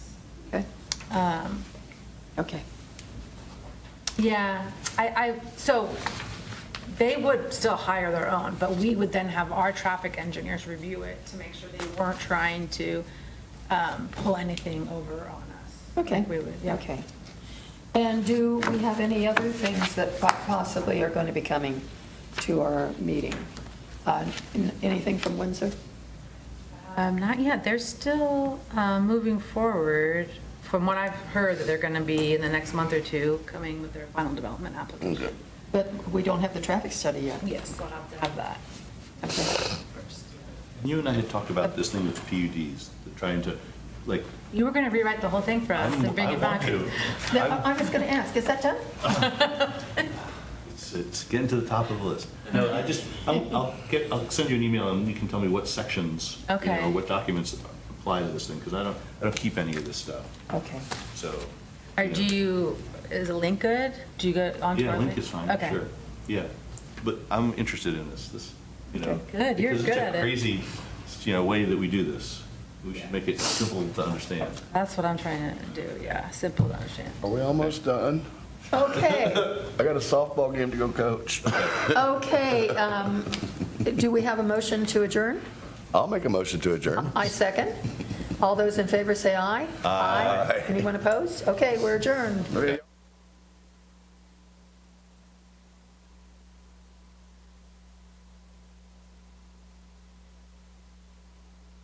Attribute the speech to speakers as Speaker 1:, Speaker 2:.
Speaker 1: Um,
Speaker 2: Okay.
Speaker 1: Yeah, I, I, so they would still hire their own, but we would then have our traffic engineers review it to make sure they weren't trying to um, pull anything over on us.
Speaker 2: Okay,
Speaker 1: Like we would, yeah.
Speaker 2: okay. And do we have any other things that po- possibly are going to be coming to our meeting? Uh, n- Anything from Windsor?
Speaker 1: Um, Not yet, they're still uh, moving forward, from what I've heard, that they're going to be in the next month or two coming with their final development application.
Speaker 3: Okay.
Speaker 2: But we don't have the traffic study yet.
Speaker 1: Yes, we'll have to have that
Speaker 2: Okay.
Speaker 1: first.
Speaker 3: You and I had talked about this thing with PUDs, the trying to, like,
Speaker 1: You were going to rewrite the whole thing for us
Speaker 3: I'm-
Speaker 1: and bring
Speaker 3: I
Speaker 1: it back.
Speaker 3: want to.
Speaker 2: Now, I I was going to ask, is that done?
Speaker 3: It's- It's getting to the top of the list. No, I just, I'll, I'll get, I'll send you an email and you can tell me what sections, you
Speaker 1: Okay.
Speaker 3: know, what documents apply to this thing, because I don't, I don't keep any of this stuff,
Speaker 2: Okay.
Speaker 3: so.
Speaker 1: Or
Speaker 3: know.
Speaker 1: do you, is a link good? Do you go onto our
Speaker 3: Yeah,
Speaker 1: link?
Speaker 3: link is fine,
Speaker 1: Okay.
Speaker 3: sure. Yeah, but I'm interested in this, this, you know.
Speaker 2: Okay.
Speaker 1: Good, you're
Speaker 3: because it's
Speaker 1: good
Speaker 3: a
Speaker 1: at it.
Speaker 3: Crazy, you know, way that we do this. We should make it simple to understand.
Speaker 1: That's what I'm trying to do, yeah, simple to understand.
Speaker 4: Are we almost done?
Speaker 2: Okay,
Speaker 4: I got a softball game to go coach.
Speaker 2: okay. um, Do we have a motion to adjourn?
Speaker 4: I'll make a motion to adjourn.
Speaker 2: I second. All those in favor say aye. Aye. Anyone opposed? Okay, we're adjourned.
Speaker 4: Okay.